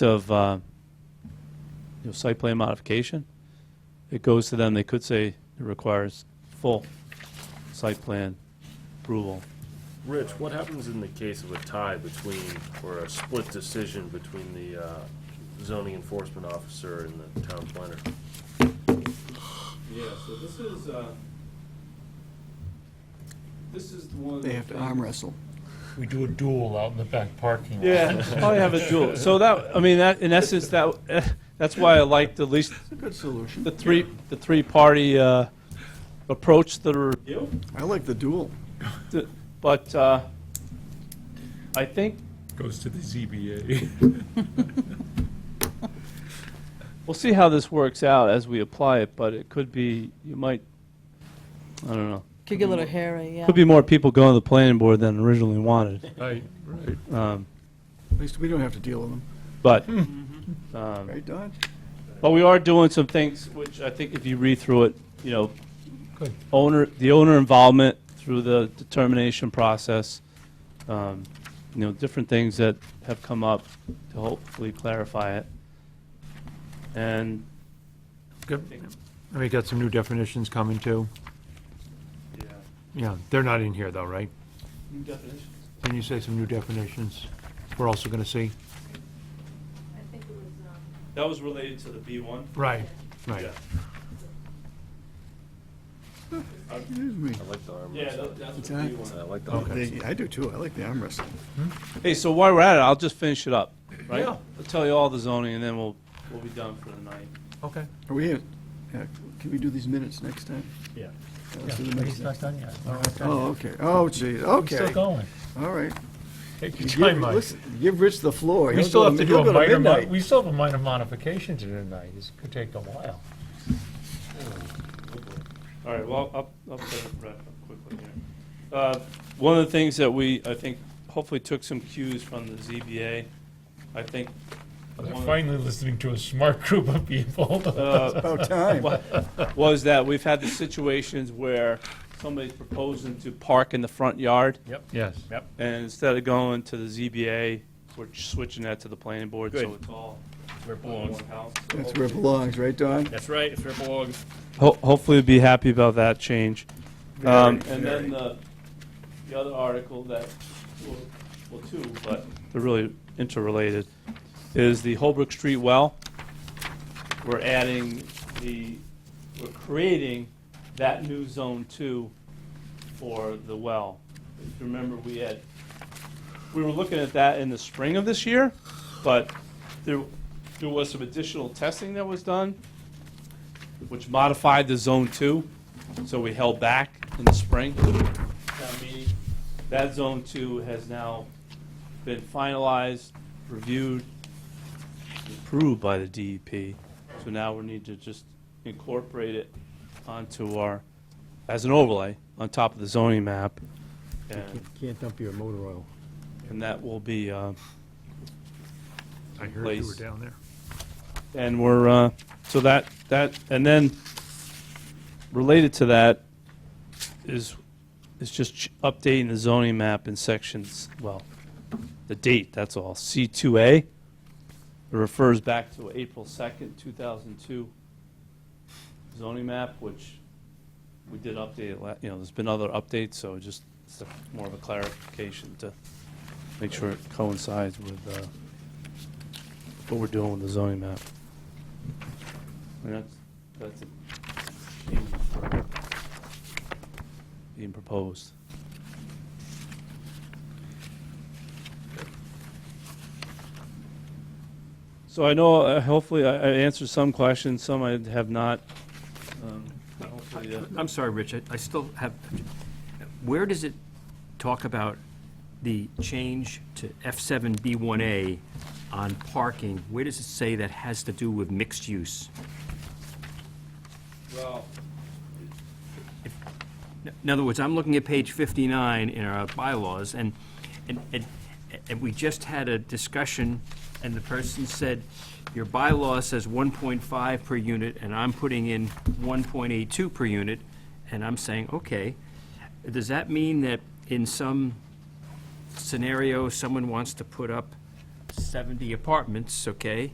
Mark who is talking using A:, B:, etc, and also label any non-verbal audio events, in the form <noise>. A: of, uh, you know, site plan modification, it goes to them, they could say it requires full site plan approval.
B: Rich, what happens in the case of a tie between, or a split decision between the uh, zoning enforcement officer and the town planner?
C: Yeah, so this is, uh, this is the one.
D: They have to arm wrestle.
E: We do a duel out in the back parking
A: <laughs>
E: lot.
A: Yeah, probably have a dual. So that, I mean, that, in essence, that, <laughs> eh, that's why I like the least,
D: Good solution.
A: the three, the three-party, uh, approach that are
C: Yep.
D: I like the duel.
A: Th- But uh, I think,
E: Goes to the ZBA.
A: <laughs> we'll see how this works out as we apply it, but it could be, you might, I don't know.
F: Could get a little hairy, yeah.
A: Could be more people going to the planning board than originally wanted.
E: Right, right.
A: Um,
D: At least we don't have to deal with them.
A: But, um,
D: Right, Don?
A: but we are doing some things, which I think if you read through it, you know,
E: Good.
A: owner, the owner involvement through the determination process, um, you know, different things that have come up to hopefully clarify it. And
G: We got some new definitions coming too. Yeah, they're not in here though, right?
A: New definitions?
G: Can you say some new definitions? We're also gonna see.
A: That was related to the B1.
G: Right. Right.
D: Excuse me.
B: I like the arm wrestle.
A: that's
D: the B1.
B: I like the
H: Oh,
B: arm
G: Okay.
D: They- I do too. I like the arm wrestling.
A: Hey, so while we're at it, I'll just finish it up, right?
G: Yeah.
A: I'll tell you all the zoning, and then we'll, we'll be done for the night.
G: Okay.
D: Are we, at- yeah, can we do these minutes next time?
E: Yeah.
D: Uh, let's do the
E: He's
D: next-
E: not done yet. We're not done
D: Oh,
E: yet.
D: okay. Oh, geez,
E: We're Still
D: okay.
E: going.
D: All right.
E: Take
D: You
E: your
D: give-
E: time, Mike.
D: listen, Give Rich the floor.
G: We
D: He'll
G: still
D: go
G: have to do
D: he'll
G: a
D: go
G: minor, mo-
D: midnight.
G: we still have a minor modification to do tonight. It's gonna take a while.
A: All right, well, I'll, I'll try to wrap up quickly here. Uh, One of the things that we, I think, hopefully took some cues from the ZBA, I think.
E: They're
A: one of-
E: finally listening to a smart group of people.
A: uh,
D: About
G: <laughs>
D: time.
A: wa- was that we've had the situations where somebody's proposing to park in the front yard,
E: Yep.
G: Yes.
E: Yep.
A: and instead of going to the ZBA, we're switching that to the planning board, so
H: Good.
A: it's all
H: Where it
A: one
H: belongs.
A: house. So
D: That's where
A: hopefully-
D: it belongs, right, Don?
H: That's right, it's where it belongs.
A: Ho- Hopefully, we'll be happy about that change. Um,
D: Very,
A: And
D: very.
A: then the, the other article that, well- well, two, but they're really interrelated, is the Holbrook Street well. We're adding the, we're creating that new Zone 2 for the well. If you remember, we had, we were looking at that in the spring of this year, but there, there was some additional testing that was done, which modified the Zone 2, so we held back in the spring. town meeting. That Zone 2 has now been finalized, reviewed, approved by the DEP, so now we need to just incorporate it onto our, as an overlay, on top of the zoning map, and,
G: Can't dump your motor oil.
A: and that will be, uh,
G: I heard you
A: Place.
G: were down there.
A: And we're, uh, so that, that, and then related to that is, is just ch- updating the zoning map in sections, well, the date, that's all. C2A, it refers back to April 2nd, 2002 zoning map, which we did update, it la- you know, there's been other updates, so just it's a- more of a clarification to make sure it coincides with uh, what we're doing with the zoning map. And that's, that's a change for being proposed. So I know, uh, hopefully, I I answered some questions, some I have not. Um, hopefully, uh,
H: I'm sorry, Rich, I- I still have, where does it talk about the change to F7B1A on parking? Where does it say that has to do with mixed use?
A: Well,
H: In other words, I'm looking at page 59 in our bylaws, and, and, and- and we just had a discussion, and the person said, your bylaw says 1.5 per unit, and I'm putting in 1.82 per unit, and I'm saying, okay, does that mean that in some scenario, someone wants to put up 70 apartments, okay?